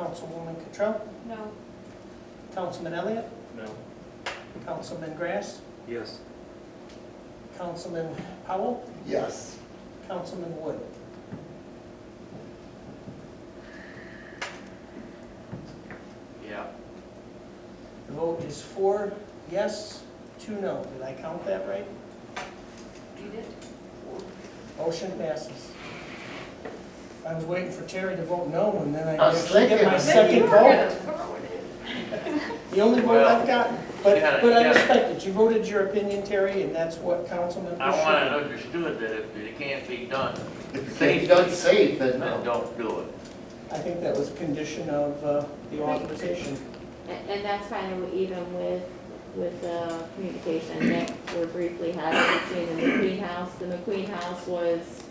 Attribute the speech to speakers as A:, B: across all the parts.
A: Councilwoman Cottrell,
B: No.
A: Councilman Elliott,
C: No.
A: Councilman Grass,
C: Yes.
A: Councilman Powell,
D: Yes.
A: Councilman Wood.
C: Yeah.
A: The vote is four yes, two no. Did I count that right?
B: You did?
A: Motion passes. I was waiting for Terry to vote no, and then I
D: I was
A: actually get my
D: thinking.
A: second vote. The only vote
C: Well,
A: I've gotten.
C: you
A: But,
C: gotta-
A: but
C: you
A: I
C: gotta-
A: respect it. You voted your opinion, Terry, and that's what council members should.
C: I want it understood that if it can't be done,
D: If it's done safe, then
C: then
D: no.
C: don't do it.
A: I think that was a condition of uh, the authorization.
E: And and that's kind of even with, with the communication that we're briefly having between the McQueen House. The McQueen House was,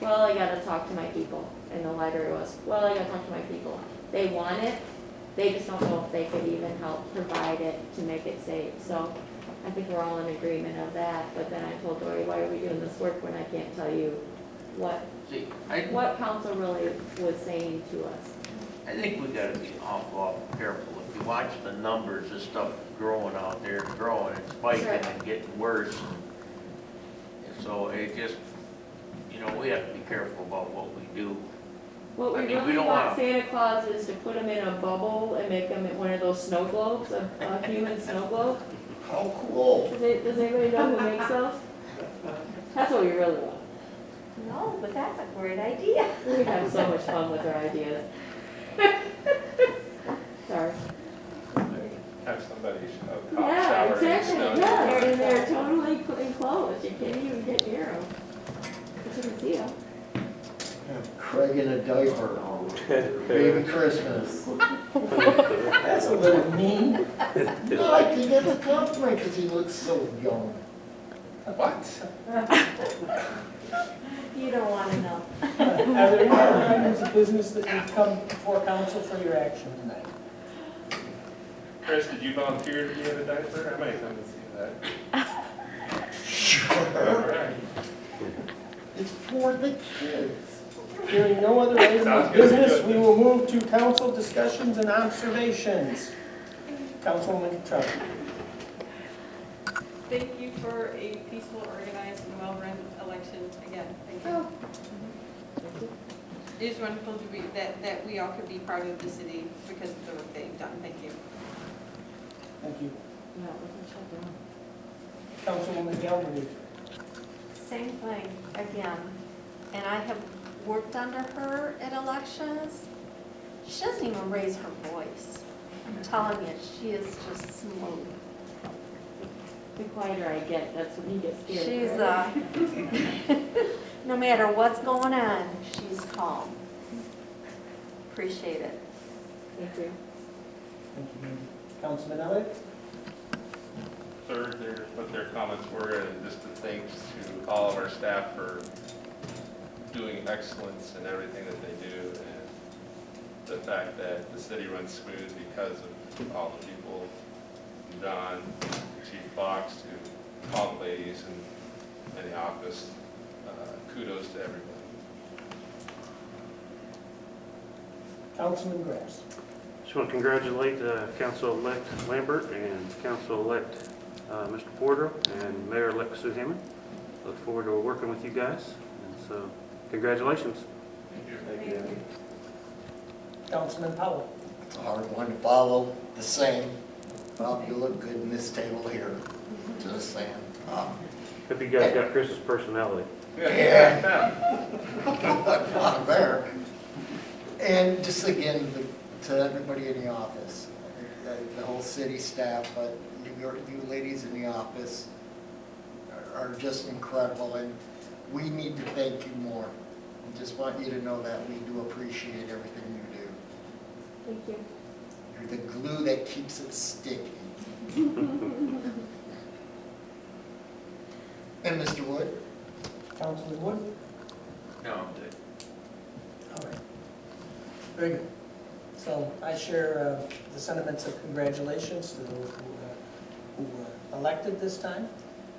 E: well, I gotta talk to my people. And the library was, well, I gotta talk to my people. They want it, they just don't know if they could even help provide it to make it safe. So I think we're all in agreement of that, but then I told Dory, why are we doing this work when I can't tell you what,
C: See, I,
E: what council really was saying to us?
C: I think we gotta be awful, awful careful. If you watch the numbers, this stuff growing out there, growing and spiking
E: Sure.
C: and getting worse. And so it just, you know, we have to be careful about what we do.
E: What we
C: I mean, we
E: really
C: don't
E: want
C: wanna-
E: Santa Claus is to put them in a bubble and make them one of those snow globes, a, a human snow globe.
D: How cool.
E: Does it, does anybody know who makes those? That's what we really want.
B: No, but that's a great idea.
E: We have so much fun with our ideas. Sorry.
F: Have somebody a cop
E: Yeah,
F: shower in the
E: exactly,
F: snow.
E: yeah, they're, and they're totally cl- enclosed, you can't even get near them. You shouldn't see them.
D: Have Craig in a diaper. Baby Christmas.
A: That's a little mean.
D: No, I think that's a compliment because he looks so young.
F: What?
B: You don't want to
A: Are
B: know.
A: there any other items of business that you've come before council for your action tonight?
F: Chris, did you volunteer to be in a diaper? I might come and see that. All right.
D: It's for the kids.
A: Hearing no other items of
F: Sounds good.
A: business, we will move to council discussions and observations. Councilwoman Cottrell.
G: Thank you for a peaceful, organized, and well-run election again. Thank you. It is wonderful to be, that, that we all could be part of the city because of the work they've done. Thank you.
A: Thank you.
E: No, it wasn't shut
A: Councilwoman
E: down.
A: Galbraith.
B: Same thing again. And I have worked under her at elections. She doesn't even raise her voice. I'm telling you, she is just smooth.
E: The quieter I get, that's when he gets scared.
G: She's,
E: right?
G: uh,
B: No matter what's going on, she's calm. Appreciate it.
E: Thank you.
A: Thank you, ma'am. Councilman Elliott.
F: Third, their, what their comments were, and just the thanks to all of our staff for doing excellence in everything that they do, and the fact that the city runs smooth because of all the people, Don, Chief Fox, to all the ladies in, in the office. Uh, Kudos to everyone.
A: Councilman Grass.
H: Just want to congratulate uh, Council-elect Lambert and Council-elect uh, Mr. Porter and Mayor-elect Sue Hammond. Look forward to working with you guys, and so congratulations.
A: Councilman Powell.
D: Hard one to follow, the same. Bob, you look good in this table here. Just saying. Um,
H: Hope you guys got Chris's personality.
D: Yeah. Not there. And just again, the- to everybody in the office, the- the whole city staff, but your, you ladies in the office are- are just incredible, and we need to thank you more. I Just want you to know that we do appreciate everything you do.
E: Thank you.
D: You're the glue that keeps it sticky. And Mr. Wood?
A: Councilman Wood.
C: No, I'm good.
A: All right. Very good. So I share uh, the sentiments of congratulations to those who, uh, who were elected this time.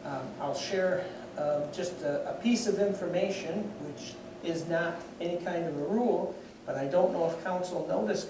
A: Um, I'll share uh, just a, a piece of information, which is not any kind of a rule, but I don't know if council noticed